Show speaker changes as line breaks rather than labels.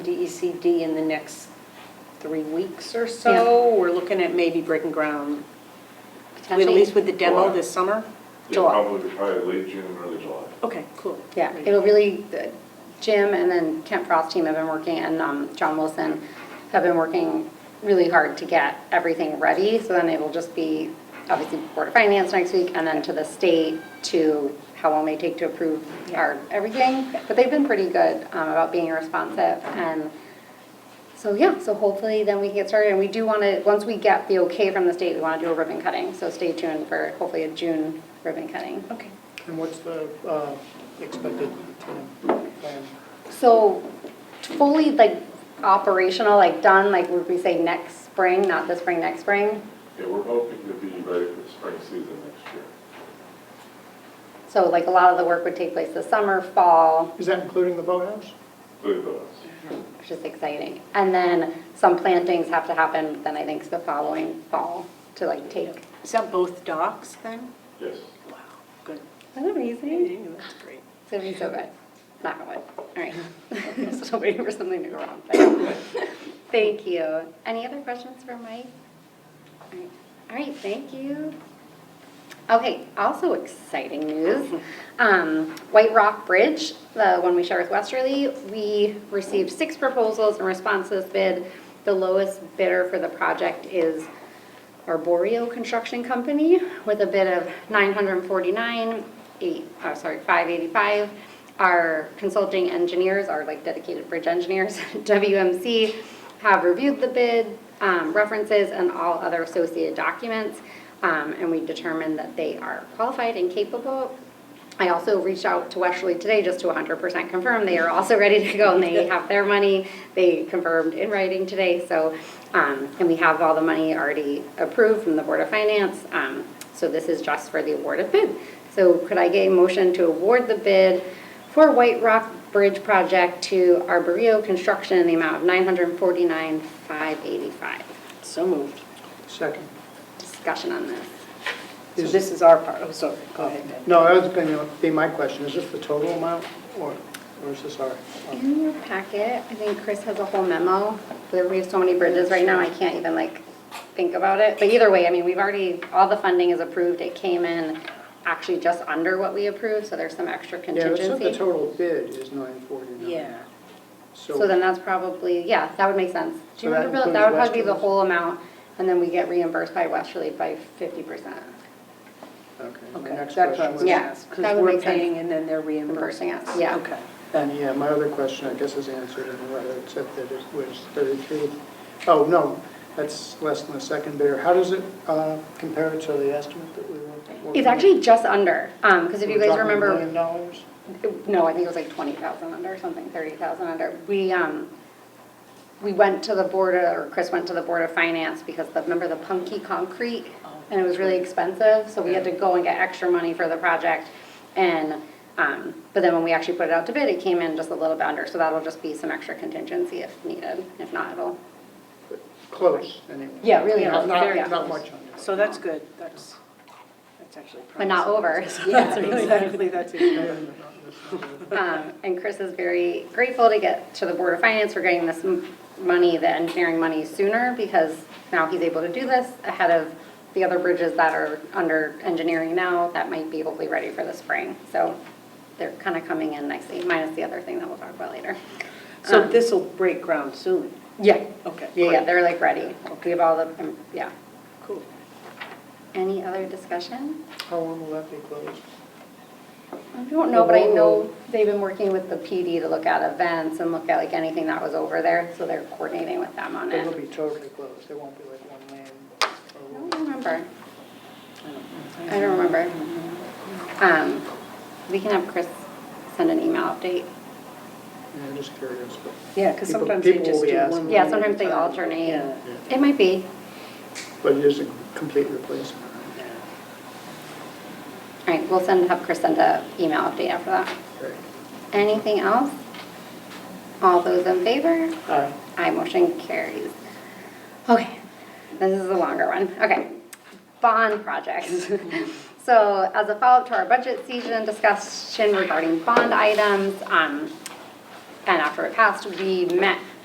DECD E in the next three weeks or so. We're looking at maybe breaking ground, at
potentially.
least with the demo
July.
this summer?
Yeah,
July.
Probably, probably late June, early July.
Okay, cool.
Yeah, it'll really, the- Jim and then Kent Frost team have been working, and um, John Wilson have been working really hard to get everything ready, so then it will just be, obviously, Board of Finance next week, and then to the state to how long they take to approve our everything. But they've been pretty good um, about being responsive, and so, yeah, so hopefully then we can get started, and we do want to, once we get the okay from the state, we want to do a ribbon cutting, so stay tuned for hopefully a June ribbon cutting.
Okay.
And what's the uh, expected time? plan?
So fully like operational, like done, like would we say next spring, not this spring, next spring?
Yeah, we're hoping to be ready for the spring season next year.
So like a lot of the work would take place this summer, fall,
Is that including the boathouse?
Believe us.
which is exciting. And then some plantings have to happen, then I think the following fall to like take.
Is that both docks then?
Yes.
Wow, good.
Isn't that amazing?
That's great.
It's gonna be so good. Knock on wood. All right. Still waiting for something to go wrong. but- Thank you. Any other questions for Mike? All right. All right, thank you. Okay, also exciting news. Um, White Rock Bridge, the one we share with Westerly, we received six proposals in response to this bid. The lowest bidder for the project is Arborio Construction Company with a bid of nine hundred and forty-nine, eight, oh, sorry, five eighty-five. Our consulting engineers, our like dedicated bridge engineers, WMC, have reviewed the bid, um, references and all other associated documents. um, and we determined that they are qualified and capable I also reached out to Westerly today just to 100% confirm they are also ready to go and they have their money. They confirmed in writing today, so, um, and we have all the money already approved from the Board of Finance. um, So this is just for the award of bid. So could I get a motion to award the bid for White Rock Bridge Project to Arborio Construction in the amount of 949,585?
So moved.
Second.
Discussion on this.
So
Is-
this is our part, oh, sorry, go ahead. Deb.
No, that was going to be my question. Is this the total amount or or is this our? um,
In your packet, I think Chris has a whole memo. There- We have so many bridges right now, I can't even like think about it. But either way, I mean, we've already, all the funding is approved. It came in actually just under what we approved, so there's some extra
Yeah, it said the
contingency.
total bid is 949.
Yeah.
So then that's probably, yeah, that would make sense. Do you
So that
remember, Bill? that would
includes
probably be the
Westerly's?
whole amount, and then we get reimbursed by Westerly by fifty percent.
Okay, my
Okay,
next
that's what I
question
was
was.
gonna
Yeah,
ask,
that
because
would
we're
make sense.
paying and then they're reimbursing.
Reimbursing us, yeah.
Okay.
And yeah, my other question, I guess, is answered in the letter, except that it was 33. Oh, no, that's less than the second bidder. How does it uh, compare to the estimate that we were?
It's actually just under, um, because if you
We're
guys
talking
remember.
a million dollars?
No, I think it was like twenty thousand under, something, thirty thousand under. We, um, we went to the board, of- or Chris went to the Board of Finance because the, remember the punky concrete? And it was really expensive, so we had to go and get extra money for the project. And, um, but then when we actually put it out to bid, it came in just a little bit under, so that'll just be some extra contingency if needed. If not, it'll,
Close, anyway.
Yeah, really
Not-
close, very
Not, not
close.
much under.
So that's good, that's, that's actually.
but not
promising.
over.
Yeah, exactly, that's it.
Um, And Chris is very grateful to get to the Board of Finance for getting this m- money, the engineering money sooner, because now he's able to do this ahead of the other bridges that are under engineering now that might be hopefully ready for the spring. So they're kind of coming in nicely, minus the other thing that we'll talk about later.
So this'll break ground soon,
Yeah.
okay.
Yeah, yeah,
great.
they're like ready. We have all the, um, yeah.
Cool.
Any other discussion?
How long will that be closed?
I don't know, but I
Well,
know they've been working with the PD to look at events and look at like anything that was over there, so they're coordinating with them on
It will
it.
be totally closed, there won't be like one lane.
I
or-
don't remember. I don't remember. Um, we can have Chris send an email update.
Yeah, I'm just curious, but,
Yeah, because
People-
sometimes they
people
just
will be
do
asking.
one.
Yeah,
lane
sometimes
at
they
a time.
alternate.
Yeah.
It might be.
but it is a complete replacement.
All right, we'll send, have Chris send a email update after that.
Great.
Anything else? All those in favor?
Aye.
Aye, motion carries. Okay, this is a longer one. Okay, bond projects. So as a follow-up to our budget season discussion regarding bond items, um, and after it passed, we met